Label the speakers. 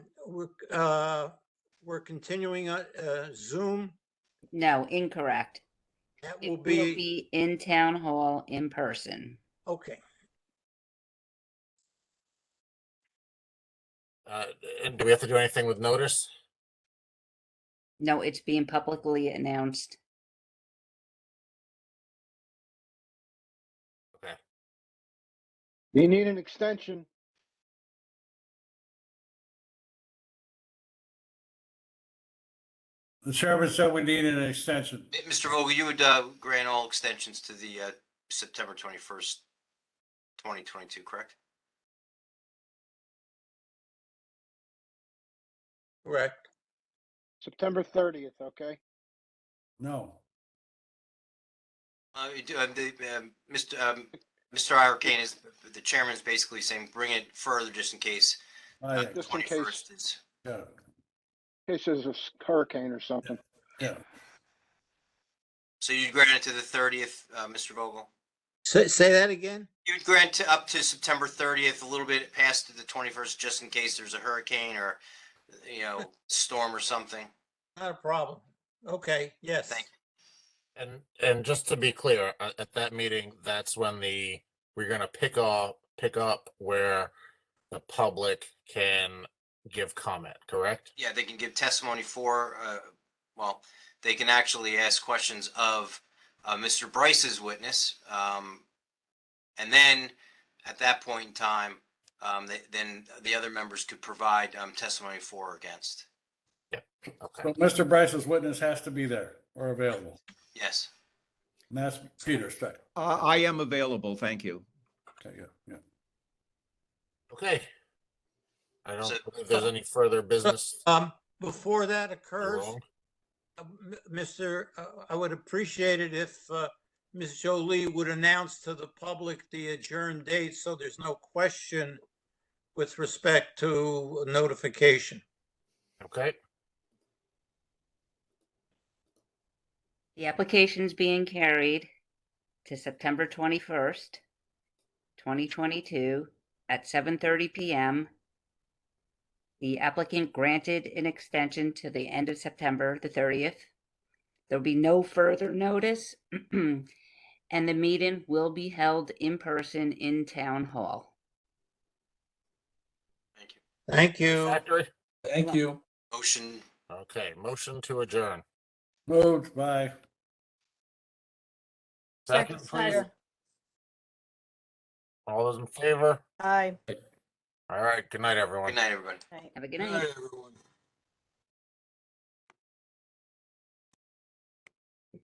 Speaker 1: we're, uh, we're continuing on, uh, Zoom.
Speaker 2: No, incorrect.
Speaker 1: That
Speaker 2: It
Speaker 1: will be,
Speaker 2: in town hall in person.
Speaker 1: okay.
Speaker 3: Uh, and do we have to do anything with notice?
Speaker 2: No, it's being publicly announced.
Speaker 4: You need an extension.
Speaker 5: The chairman said we needed an extension.
Speaker 6: M- Mr. Vogel, you would uh, grant all extensions to the uh, September 21st, 2022, correct?
Speaker 1: Correct.
Speaker 4: September thirtieth, okay?
Speaker 5: No.
Speaker 6: Uh, you do- um, the, um, Mr. um, Mr. Irakane is, the chairman's basically saying, bring it further just in case.
Speaker 5: I,
Speaker 6: uh,
Speaker 4: Just in case.
Speaker 6: 21st is-
Speaker 5: yeah,
Speaker 4: In case there's a s- hurricane or something.
Speaker 5: yeah.
Speaker 6: So you'd grant it to the 30th, uh, Mr. Vogel?
Speaker 1: Say, say that again?
Speaker 6: You'd grant to up to September 30th, a little bit past the 21st, just in case there's a hurricane or, you know, storm or something?
Speaker 1: Not a problem. Okay, yes.
Speaker 6: Thank
Speaker 3: And, and just to be clear, at, at that meeting, that's when the, we're gonna pick up, pick up where the public can give comment, correct?
Speaker 6: Yeah, they can give testimony for, uh, well, they can actually ask questions of, uh, Mr. Bryce's witness. Um, and then at that point in time, um, they, then the other members could provide, um, testimony for or against.
Speaker 3: Okay,
Speaker 5: But Mr. Bryce's witness has to be there or available.
Speaker 6: Yes.
Speaker 5: And that's Peter Streck.
Speaker 7: Uh, I am available, thank you.
Speaker 5: Okay, yeah, yeah.
Speaker 3: okay. I don't
Speaker 6: So-
Speaker 3: believe there's any further business.
Speaker 1: Um, before that occurs,
Speaker 3: wrong.
Speaker 1: uh, m- Mr., uh, I would appreciate it if, uh, Ms. Jolie would announce to the public the adjourned date, so there's no question with respect to notification.
Speaker 3: Okay,
Speaker 2: The application's being carried to September twenty-first, twenty twenty-two at seven thirty PM. The applicant granted an extension to the end of September the thirtieth. There'll be no further notice. And the meeting will be held in person in town hall.
Speaker 6: Thank you.
Speaker 1: Thank you.
Speaker 3: Factory?
Speaker 2: Thank
Speaker 5: you.
Speaker 6: Motion,
Speaker 3: okay, motion to adjourn.
Speaker 5: Moved by,
Speaker 3: Second, please.
Speaker 8: Snyder.
Speaker 3: All those in favor?
Speaker 8: Aye.
Speaker 3: All right, good night, everyone.
Speaker 6: good night, everybody.
Speaker 8: Right.
Speaker 2: Have a good night.
Speaker 1: everyone.